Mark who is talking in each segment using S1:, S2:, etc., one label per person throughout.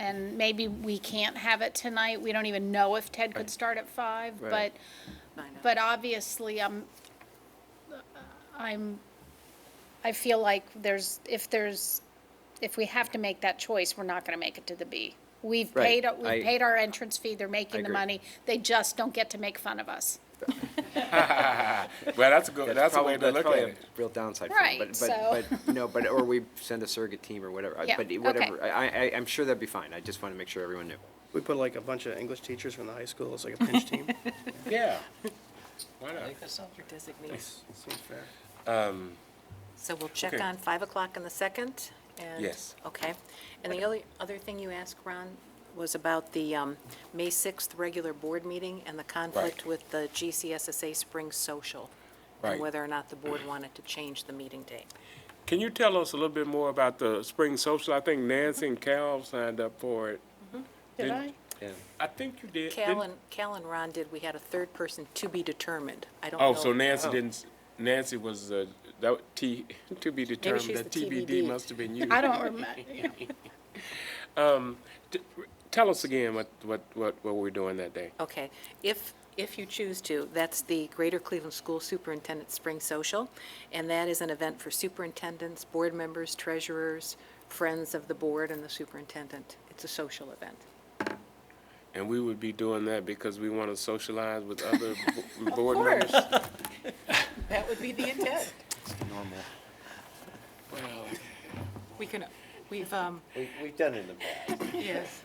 S1: and maybe we can't have it tonight. We don't even know if Ted could start at five, but,
S2: Right.
S1: but obviously, I'm, I'm, I feel like there's, if there's, if we have to make that choice, we're not gonna make it to the B. We've
S2: Right,
S1: paid, we've
S2: I-
S1: paid our entrance fee, they're making the
S2: agree.
S1: money, they just don't get to make fun of us.
S3: Well, that's a good, that's a
S2: probably-
S3: way to look at
S2: probably a
S3: it.
S2: Real downside for them,
S1: Right,
S2: but,
S1: so-
S2: but, but, no, but, or we send a surrogate team or whatever, I-
S1: Yeah,
S2: but
S1: okay.
S2: it- whatever, I, I, I'm sure that'd be fine, I just wanna make sure everyone knew.
S4: We put like a bunch of English teachers from the high school, it's like a pinch team.
S3: Yeah. Why not?
S5: designates.
S4: Seems fair.
S5: So we'll check
S3: Okay.
S5: on 5 o'clock on the 2nd? and-
S3: Yes.
S5: Okay. And the only other thing you asked, Ron, was about the um, May 6th regular board meeting and the conflict with the GCSSA Spring Social,
S3: Right.
S5: and whether or not the board wanted to change the meeting date.
S3: Can you tell us a little bit more about the spring social? I think Nancy and Cal signed up for it.
S1: Did
S3: Didn't-
S1: I?
S3: I think you did.
S5: Cal
S3: didn't-
S5: and, Cal and Ron did, we had a third person to be determined. I don't know.
S3: Oh, so Nancy didn't, Nancy was, uh, that T, to be determined,
S5: she's
S3: that
S5: the
S3: TBD
S5: TBD.
S3: must have been you.
S1: I don't remember,
S3: T- Tell us again what, what, what, what we're doing that day.
S5: Okay. If, if you choose to, that's the Greater Cleveland School Superintendent Spring Social, and that is an event for superintendents, board members, treasurers, friends of the board and the superintendent. It's a social event.
S3: And we would be doing that because we want to socialize with other bo- board members.
S5: That would be the intent.
S2: Normal.
S5: We can, we've, um,
S6: We, we've done it in the past.
S5: yes.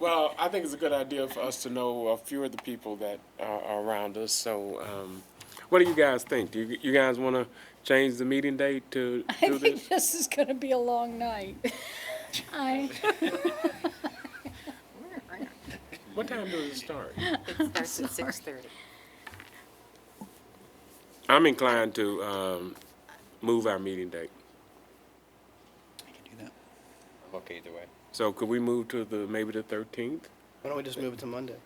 S3: Well, I think it's a good idea for us to know a few of the people that are are around us, so, um, what do you guys think? Do you, you guys want to change the meeting date to
S1: I
S3: do
S1: think
S3: this?
S1: this is gonna be a long night. I,
S3: What time does it start?
S5: It starts at 6:30.
S3: I'm inclined to, um, move our meeting date.
S6: I'm okay either way.
S3: So could we move to the, maybe the thirteenth?
S4: Why don't we just move it to Monday?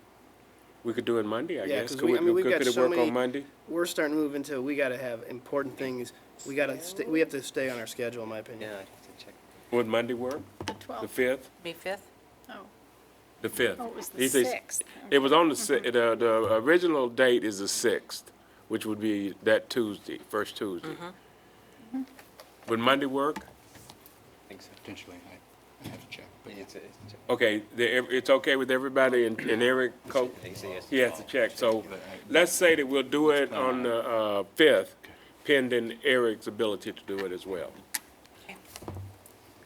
S3: We could do it Monday, I
S4: Yeah,
S3: guess.
S4: 'cause
S3: Could
S4: we- I mean, we've
S3: could-
S4: got
S3: could it
S4: so
S3: work
S4: many-
S3: on Monday?
S4: We're starting to move into, we gotta have important things, we gotta, sta- we have to stay on our schedule, in my opinion.
S6: Yeah, I have to check.
S3: Would Monday work? The
S1: twelve,
S3: fifth?
S5: May 5th?
S1: oh.
S3: The fifth.
S1: Oh, it was the
S3: He says-
S1: sixth.
S3: It was on the, si- the, the original date is the sixth, which would be that Tuesday, first Tuesday. Would Monday work?
S6: I think so. Potentially, I, I have to check. But it's, it's, it's-
S3: Okay, the, ev- it's okay with everybody and, and Eric, co-
S6: they say yes.
S3: he has to check. So let's say that we'll do it on the, uh, fifth, pending Eric's ability to do it as well.
S5: Okay.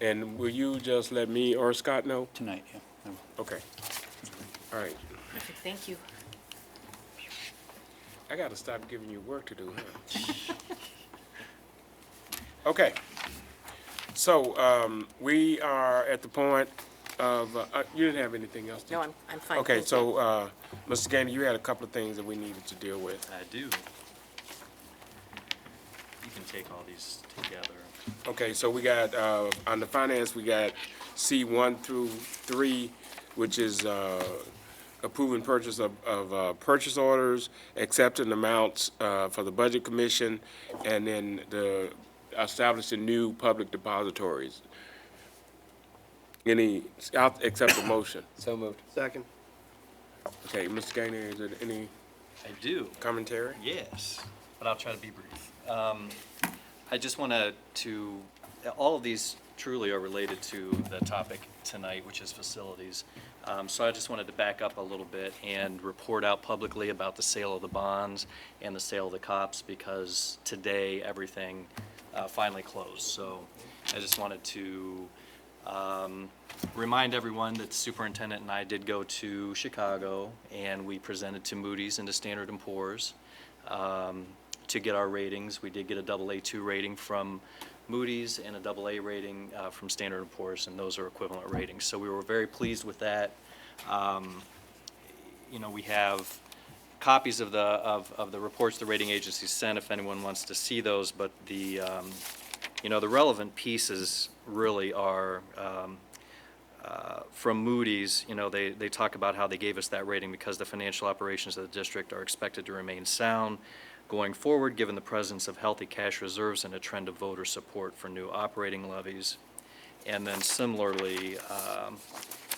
S3: And will you just let me or Scott know?
S7: Tonight, yeah.
S6: Um,
S7: No.
S3: Okay. All right.
S5: Thank you.
S3: I gotta stop giving you work to do, huh? Okay. So, um, we are at the point of, uh, uh, you didn't have anything else, did you?
S5: No, I'm, I'm fine.
S3: Okay,
S5: Thank you.
S3: so, uh, Mr. Gainer, you had a couple of things that we needed to deal with.
S7: I do. You can take all these together.
S3: Okay, so we got, uh, on the finance, we got C one through three, which is, uh, approving purchase of, of, uh, purchase orders, accepting amounts, uh, for the budget commission, and then the, establishing new public depositories. Any, I'll accept the motion.
S6: So moved.
S4: Second,
S3: Okay, Mr. Gainer, is there any
S7: I do.
S3: commentary?
S7: Yes, but I'll try to be brief. Um, I just want to, to, all of these truly are related to the topic tonight, which is facilities. Um, So I just wanted to back up a little bit and report out publicly about the sale of the bonds and the sale of the cops, because today, everything uh, finally closed. So I just wanted to um, remind everyone that the superintendent and I did go to Chicago, and we presented to Moody's and to Standard and Poor's um, to get our ratings. We did get a double A2 rating from Moody's and a double A rating uh, from Standard and Poor's, and those are equivalent ratings. So we were very pleased with that. Um, You know, we have copies of the, of, of the reports the rating agencies sent, if anyone wants to see those, but the, um, you know, the relevant pieces really are, um, uh, from Moody's, you know, they, they talk about how they gave us that rating because the financial operations of the district are expected to remain sound going forward, given the presence of healthy cash reserves and a trend of voter support for new operating levies. And then similarly, um,